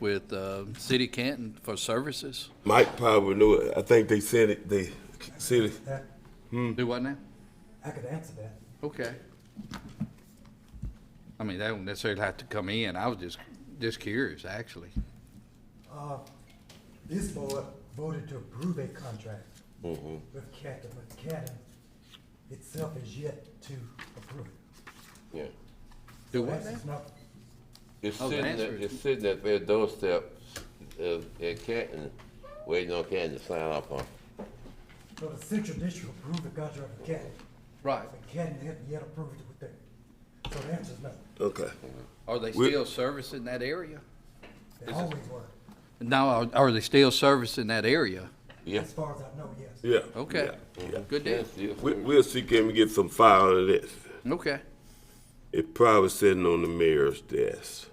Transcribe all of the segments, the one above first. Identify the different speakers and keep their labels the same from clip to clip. Speaker 1: with uh, City of Canton for services?
Speaker 2: Mike probably knew it. I think they said it. They said it.
Speaker 3: That,
Speaker 4: Mm.
Speaker 1: Do what now?
Speaker 3: I could answer that.
Speaker 1: Okay. I mean, they don't necessarily have to come in. I was just, just curious, actually.
Speaker 3: Uh, this board voted to approve a contract with Caddo, but Caddo itself is yet to approve it.
Speaker 4: Yeah.
Speaker 1: Do what
Speaker 3: That's
Speaker 1: now?
Speaker 3: just not-
Speaker 4: It's
Speaker 1: Oh, the
Speaker 4: sitting,
Speaker 1: answer
Speaker 4: at-
Speaker 1: is-
Speaker 4: it's sitting at their doorstep, uh, at Canton, waiting on Canton to sign off on. it.
Speaker 3: So the central district approved the contract with Caddo,
Speaker 1: Right.
Speaker 3: but Caddo hasn't yet approved it with them. So the answer is no.
Speaker 2: Okay.
Speaker 1: Are they
Speaker 2: We-
Speaker 1: still servicing that area?
Speaker 3: They always were.
Speaker 1: No, are, are they still servicing that area?
Speaker 4: Yeah.
Speaker 3: As far as I know, yes.
Speaker 2: Yeah.
Speaker 1: Okay.
Speaker 2: Yeah. yeah.
Speaker 1: Good deal.
Speaker 4: Yes, yes.
Speaker 2: We, we'll see. Can we get some file of this?
Speaker 1: Okay.
Speaker 2: It probably sitting on the mayor's desk.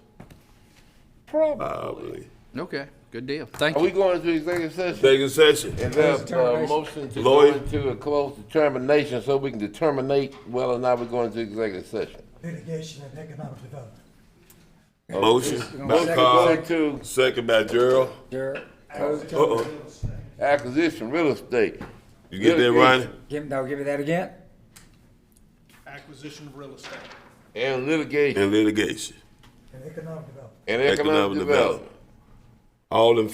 Speaker 2: Probably.
Speaker 1: Okay. Good deal. Thank
Speaker 4: Are we
Speaker 1: you.
Speaker 4: going into executive session?
Speaker 2: Second session.
Speaker 4: Is there a uh, motion to go
Speaker 2: Lloyd?
Speaker 4: into a close determination so we can determine whether or not we're going into executive session?
Speaker 3: Litigation and economic development.
Speaker 2: Motion by Carl.
Speaker 4: Going to
Speaker 2: Second by Gerald.
Speaker 5: Sure.
Speaker 2: Uh-uh.
Speaker 4: acquisition, real estate.
Speaker 2: You get that, Ronnie?
Speaker 5: Give, no, give me that again.
Speaker 6: acquisition of real estate.
Speaker 4: And litigation
Speaker 2: And litigation.
Speaker 3: And economic development.
Speaker 4: and
Speaker 2: Economic development. All in